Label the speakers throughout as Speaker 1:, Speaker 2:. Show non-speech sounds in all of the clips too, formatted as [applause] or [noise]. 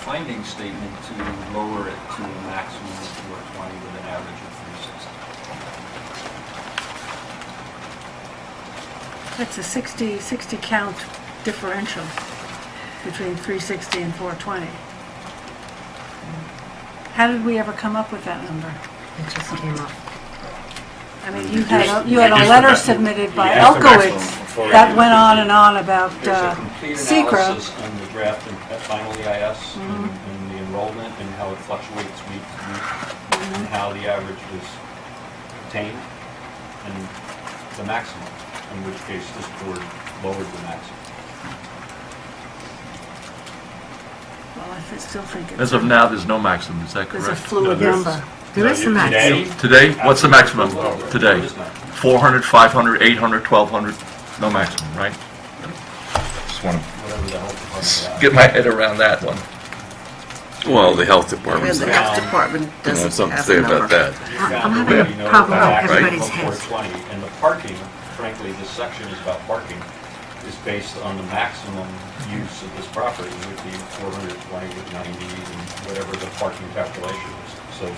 Speaker 1: finding statement to lower it to a maximum of 420 with an average of 360.
Speaker 2: That's a 60, 60 count differential between 360 and 420. How did we ever come up with that number?
Speaker 3: It just came up.
Speaker 2: I mean, you had, a- you had a letter submitted by
Speaker 4: You asked for maximum
Speaker 2: Elkowitz
Speaker 4: before
Speaker 2: that
Speaker 4: you-
Speaker 2: went on and on about uh,
Speaker 1: There's a complete
Speaker 2: SECR.
Speaker 1: analysis on the draft and uh, final EIS and and the enrollment and how it fluctuates week to week and how the average was obtained and the maximum, in which case this board lowered the maximum.
Speaker 2: Well, I th- still think it's
Speaker 5: As of now, there's no maximum, is that
Speaker 2: it's a
Speaker 5: correct?
Speaker 2: fluid
Speaker 4: No, there's-
Speaker 2: number.
Speaker 3: There is a
Speaker 4: No, you-
Speaker 3: maximum.
Speaker 4: today-
Speaker 5: Today, what's the maximum
Speaker 1: Absolutely.
Speaker 5: today?
Speaker 1: It is not.
Speaker 5: 400, 500, 800, 1,200, no maximum, right? Just want
Speaker 1: Whatever the health
Speaker 5: to
Speaker 1: department.
Speaker 5: get my head around that one.
Speaker 6: Well, the health
Speaker 3: Yeah,
Speaker 6: department's
Speaker 3: the
Speaker 6: not,
Speaker 3: health department
Speaker 6: you know,
Speaker 3: doesn't
Speaker 6: something to
Speaker 3: have
Speaker 6: say
Speaker 3: a
Speaker 6: about
Speaker 3: number.
Speaker 6: that.
Speaker 3: I'm having a problem with everybody's heads.
Speaker 1: Four twenty, and the parking, frankly, this section is about parking, is based on the maximum use of this property, would be four hundred twenty with ninety and whatever the parking calculation is. So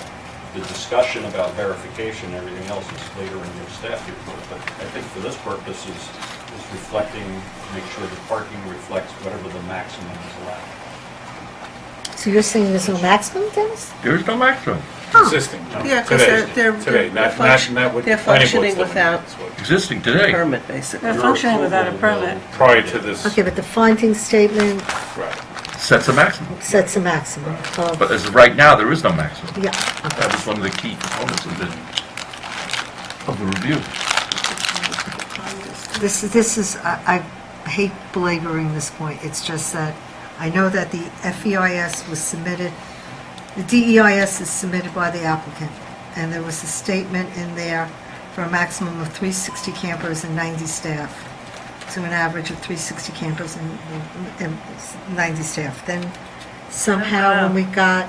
Speaker 1: the discussion about verification, and everything else is later in your staff report, but I think for this purpose is, is reflecting, make sure the parking reflects whatever the maximum is allowed.
Speaker 3: So you're saying there's no maximum, Dennis?
Speaker 5: There is no maximum.
Speaker 4: Existing.
Speaker 7: Yeah, 'cause
Speaker 4: Today.
Speaker 7: they're- they're-
Speaker 4: Today,
Speaker 7: they're
Speaker 4: not, not,
Speaker 7: function-
Speaker 4: not what.
Speaker 7: they're
Speaker 4: planning board's
Speaker 7: functioning
Speaker 4: looking
Speaker 7: without-
Speaker 4: at. It's what-
Speaker 5: Existing today.
Speaker 7: permit, basically.
Speaker 2: They're functioning without a
Speaker 1: Your approval
Speaker 2: permit.
Speaker 1: will-
Speaker 4: Prior to this,
Speaker 3: Okay, but the finding statement
Speaker 4: right.
Speaker 5: sets a maximum.
Speaker 3: sets a maximum of,
Speaker 5: But as of right now, there is no maximum.
Speaker 3: yeah,
Speaker 5: That was one of the key components of the, of the review.
Speaker 3: this is, this is, I I hate belaboring this point, it's just that I know that the FEIS was submitted, the DEIS is submitted by the applicant, and there was a statement in there for a maximum of 360 campers and 90 staff. to an average of 360 campers and and 90 staff. Then somehow, when we got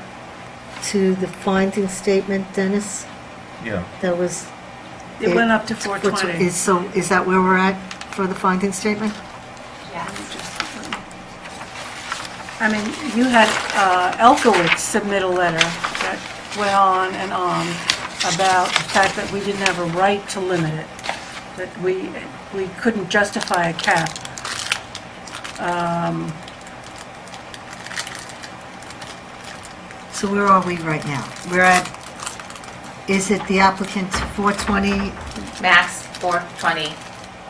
Speaker 3: to the finding statement, Dennis,
Speaker 5: Yeah.
Speaker 3: that was...
Speaker 2: It went up to
Speaker 3: What's-
Speaker 2: 420.
Speaker 3: is- So is that where we're at for the finding statement?
Speaker 2: I mean, you had uh, Elkowitz submit a letter that went on and on about the fact that we didn't have a right to limit it, that we, we couldn't justify a cap.
Speaker 3: So where are we right now? We're at, is it the applicant's 420
Speaker 8: Max 420,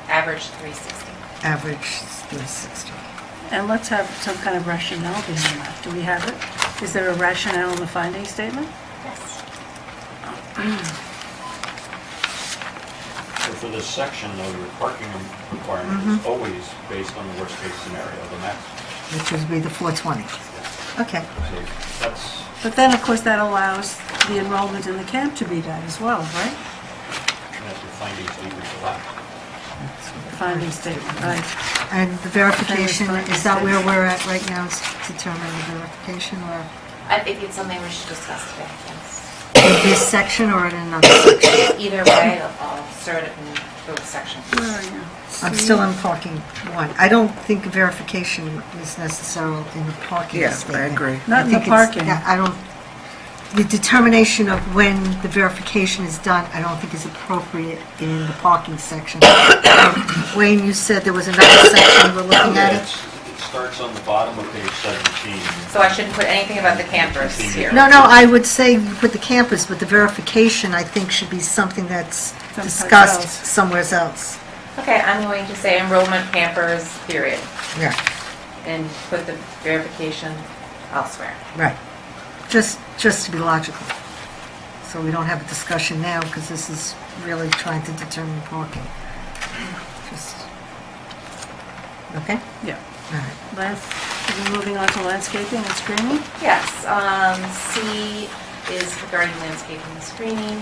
Speaker 8: average 360.
Speaker 3: average 360?
Speaker 2: And let's have some kind of rationale behind that. Do we have it? Is there a rationale in the finding statement?
Speaker 8: Yes.
Speaker 1: So for this section, though, your parking requirement is always based on the worst-case scenario, the maximum.
Speaker 3: Which would be the 420. Okay.
Speaker 1: So that's,
Speaker 2: But then, of course, that allows the enrollment in the camp to be done as well, right?
Speaker 1: that's your findings leading to that.
Speaker 2: The finding statement, right?
Speaker 3: And the verification,
Speaker 2: Finding
Speaker 3: is that where we're at right now, is to determine the verification, or
Speaker 8: I think it's something we should discuss today, yes.
Speaker 3: in this section or in another section?
Speaker 8: Either way, I'll- I'll start it in both sections.
Speaker 2: Where are you?
Speaker 3: I'm still on parking one. I don't think verification is necessary in the parking
Speaker 7: Yeah, I
Speaker 3: statement.
Speaker 7: agree.
Speaker 2: Not in the
Speaker 3: think it's-
Speaker 2: parking.
Speaker 3: I don't, the determination of when the verification is done, I don't think is appropriate in the parking section. [coughs] Wayne, you said there was another section we're looking at it?
Speaker 1: It's- It starts on the bottom of page 17.
Speaker 8: So I shouldn't put anything about the campers here.
Speaker 3: No, no, I would say you put the campus, but the verification, I think, should be something that's
Speaker 2: Someplace
Speaker 3: discussed
Speaker 2: else.
Speaker 3: somewhere else.
Speaker 8: Okay, I'm going to say enrollment campers, period,
Speaker 3: Yeah,
Speaker 8: and put the verification elsewhere.
Speaker 3: right. Just, just to be logical. So we don't have a discussion now, because this is really trying to determine parking. Just, okay?
Speaker 2: Yeah.
Speaker 3: All right.
Speaker 2: Lance, are we moving on to landscaping and screening?
Speaker 8: Yes, um, C is regarding landscaping and screening.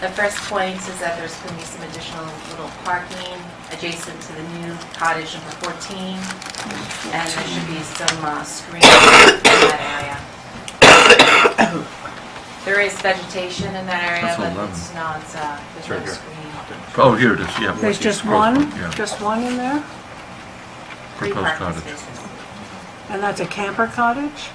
Speaker 8: The first point is that there's going to be some additional little parking adjacent to the new cottage number 14, and there should be some uh, screening in that area. There is vegetation in that area,
Speaker 5: That's
Speaker 8: but
Speaker 5: eleven.
Speaker 8: it's not, uh, there's
Speaker 4: Right
Speaker 8: no
Speaker 4: here.
Speaker 8: screening.
Speaker 5: Oh, here it is, yeah.
Speaker 2: There's just
Speaker 5: Proposed
Speaker 2: one,
Speaker 5: Yeah.
Speaker 2: just one in there?
Speaker 8: Three
Speaker 5: Proposed
Speaker 8: parking
Speaker 5: cottage.
Speaker 8: spaces.
Speaker 2: And that's a camper cottage?